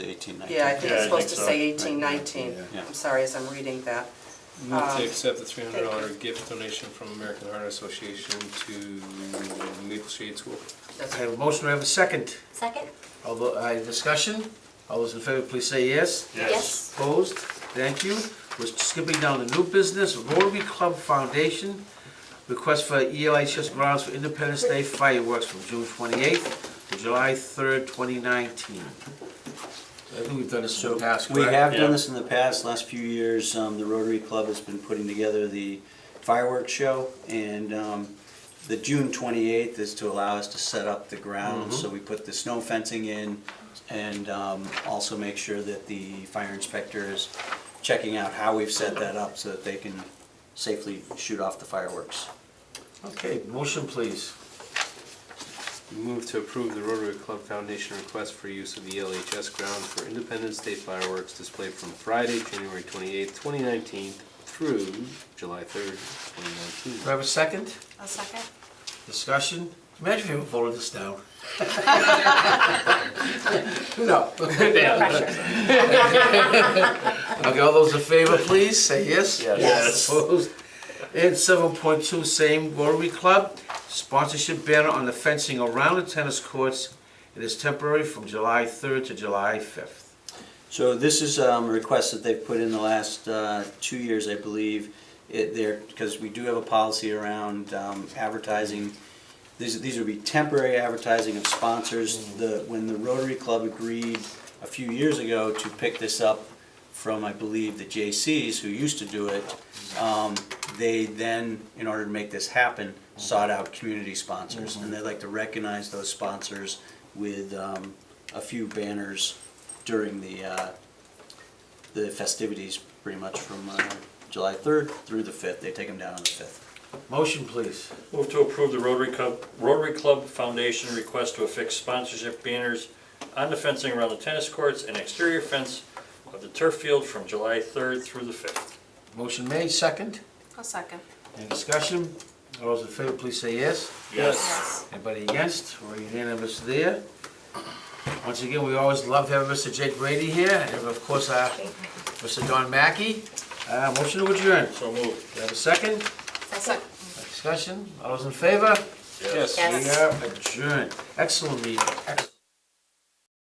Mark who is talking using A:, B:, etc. A: 18, 19.
B: Yeah, I think it's
C: Yeah, I think
B: supposed to
C: so.
B: say eighteen, nineteen.
A: Yeah.
B: I'm sorry, as I'm reading that.
D: Move
B: Um,
D: to accept the three hundred dollar
B: thank
D: gift donation from American Heart Association to Maple Shade School.
B: That's
E: I have a motion, I have a second.
F: Second?
E: Although, I have discussion. All those in favor, please say yes.
F: Yes.
E: Opposed? Thank you. We're skipping down to new business, Rotary Club Foundation, request for E ELHS grounds for Independence Day fireworks from June 28th to July 3rd, 2019. I think we've done this in the past,
A: We
E: correct?
A: have
C: Yeah.
A: done this in the past, last few years, um, the Rotary Club has been putting together the fireworks show, and, um, the June twenty-eighth is to allow us to set up the grounds,
E: Mm-hmm.
A: so we put the snow fencing in, and, um, also make sure that the fire inspector is checking out how we've set that up, so that they can safely shoot off the fireworks.
E: Okay, motion please.
D: Move to approve the Rotary Club Foundation request for use of the E LHS grounds for Independence Day fireworks display from Friday, January twenty-eighth, twenty nineteen through July third, twenty
E: Do I
D: nineteen.
E: have a second?
F: A second?
E: Discussion? Imagine if you voted this down. No. Okay, all those in favor, please, say yes.
C: Yes. Yes.
E: Opposed? And seven point two, same Rotary Club, sponsorship banner on the fencing around the tennis courts. It is temporary from July third to July fifth.
A: So this is um, a request that they've put in the last uh, two years, I believe, it there, because we do have a policy around um, advertising. These, these would be temporary advertising of sponsors. The, when the Rotary Club agreed a few years ago to pick this up from, I believe, the J.C.'s who used to do it, um, they then, in order to make this happen, sought out community sponsors. And they'd like to recognize those sponsors with um, a few banners during the, uh, the festivities, pretty much from uh, July 3rd through the 5th. They take them down on the 5th.
E: Motion, please.
C: Move to approve the Rotary Club, Rotary Club Foundation request to affix sponsorship banners on the fencing around the tennis courts and exterior fence of the turf field from July 3rd through the 5th.
E: Motion made, second.
F: A second.
E: Any discussion? All those in favor, please say yes.
F: Yes.
E: Anybody against? We're unanimous there. Once again, we always love having Mr. Jake Brady here, and of course, uh, Mr. Don Mackey. Uh, Motion to adjourn.
C: So moved.
E: Do you have a second?
F: A second.
E: Discussion? All those in favor?
F: Yes.
E: We are adjourned. Excellent meeting. Excellent.